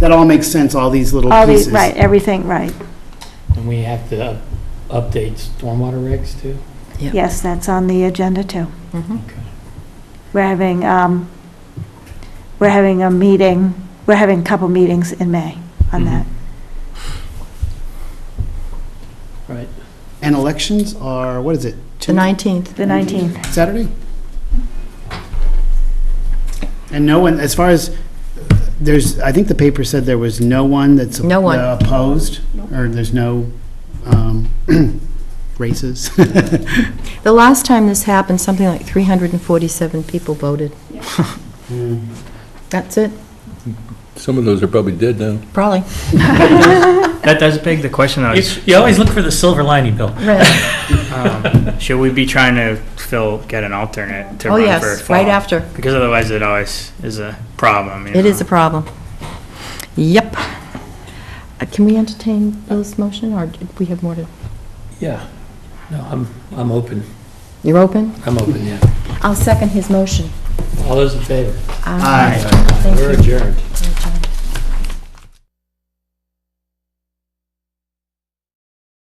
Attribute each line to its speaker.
Speaker 1: that all makes sense, all these little
Speaker 2: All
Speaker 1: pieces.
Speaker 2: these, right, everything, right.
Speaker 3: And we have to update stormwater regs too?
Speaker 2: Yes, that's on the agenda too.
Speaker 4: Mhm.
Speaker 2: We're having, um, we're having a meeting, we're having a couple meetings in May on that.
Speaker 3: Right.
Speaker 1: And elections are, what is it?
Speaker 4: The 19th.
Speaker 2: The 19th,
Speaker 1: Saturday? And no one, as far as, there's, I think the paper said there was no one that's
Speaker 4: No one.
Speaker 1: opposed? Or there's no um, races?
Speaker 4: The last time this happened, something like 347 people voted. That's it,
Speaker 5: Some of those are probably dead now.
Speaker 4: probably.
Speaker 6: That does beg the question, though, is,
Speaker 3: You you always look for the silver lining, Bill.
Speaker 4: Right.
Speaker 6: um, should we be trying to fill, get an alternate to
Speaker 4: Oh,
Speaker 6: run for
Speaker 4: yes,
Speaker 6: fall?
Speaker 4: right after.
Speaker 6: Because otherwise it always is a problem, you
Speaker 4: It
Speaker 6: know?
Speaker 4: is a problem. Yep. Uh, Can we entertain Bill's motion, or do we have more to?
Speaker 3: Yeah. No, I'm, I'm open.
Speaker 4: You're open?
Speaker 3: I'm open, yeah.
Speaker 4: I'll second his motion.
Speaker 3: All those in favor?
Speaker 4: Um,
Speaker 1: Aye.
Speaker 4: Thank
Speaker 3: We're
Speaker 4: you.
Speaker 3: adjourned.
Speaker 4: John.